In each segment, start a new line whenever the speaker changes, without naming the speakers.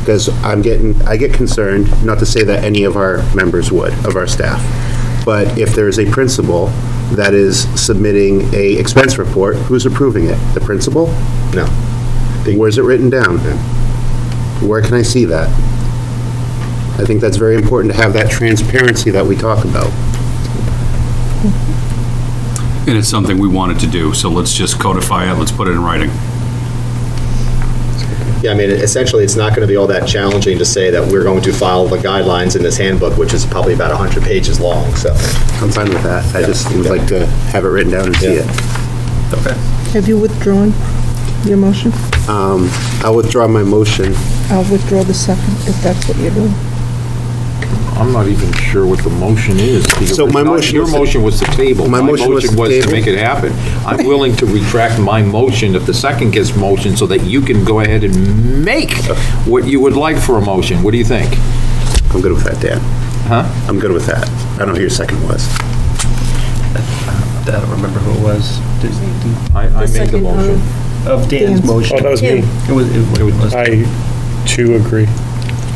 because I'm getting, I get concerned, not to say that any of our members would, of our staff, but if there is a principal that is submitting a expense report, who's approving it? The principal? No. Where's it written down? Where can I see that? I think that's very important to have that transparency that we talk about.
And it's something we wanted to do, so let's just codify it, let's put it in writing.
Yeah, I mean, essentially, it's not going to be all that challenging to say that we're going to follow the guidelines in this handbook, which is probably about 100 pages long, so.
I'm fine with that. I just would like to have it written down and see it.
Have you withdrawn your motion?
Um, I'll withdraw my motion.
I'll withdraw the second, if that's what you're doing.
I'm not even sure what the motion is. because
So my
it's not-
motion
Your
was to-
motion was to table.
My motion was to table.
make it happen. I'm willing to retract my motion if the second gets motion, so that you can go ahead and make what you would like for a motion. What do you think?
I'm good with that, Dan.
Huh?
I'm good with that. I don't know who your second was.
I don't remember who it was. Did- did-
I, I made the motion.
Of Dan's
Dan's.
Oh,
motion.
that was me. Ah.
It was, it was.
I too agree.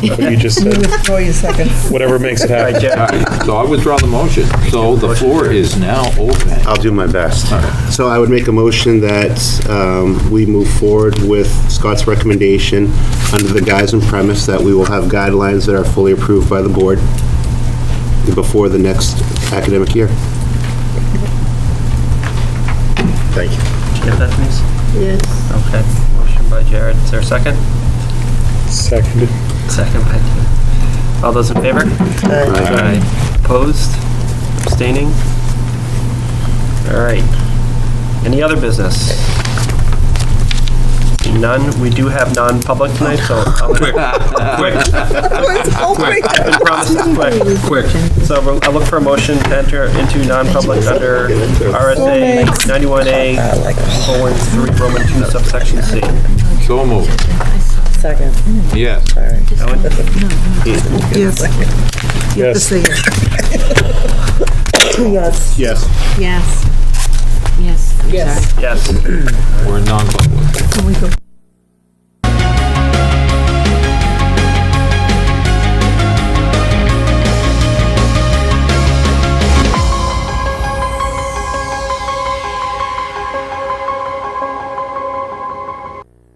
What you just said,
Withdraw your second.
whatever makes it happen.
All right, So I withdraw the motion. So the floor is now open.
I'll do my best. So I would make a motion that um, we move forward with Scott's recommendation under the guise and premise that we will have guidelines that are fully approved by the board before the next academic year.
Thank you.
Did you have that, please?
Yes.
Okay. Motion by Jared. Is there a second?
Seconded.
Second by Dan. All those in favor? Aye. Opposed? Abstaining? All right. Any other business? Seeing None. We do have non-public tonight, so. I'll-
Quick, quick,
Oh,
quick,
I've been promised it's quick.
quick.
So I'll- I'll look for a motion to enter into non-public under RSA 91A, 413, Roman 2, subsection C.
So moved.
Second.
Yes.
Yes. You have to
Yes.
say yes. Yes.
Yes.
Yes. Yes. Yes.
Yes.
We're non-public.
Can we go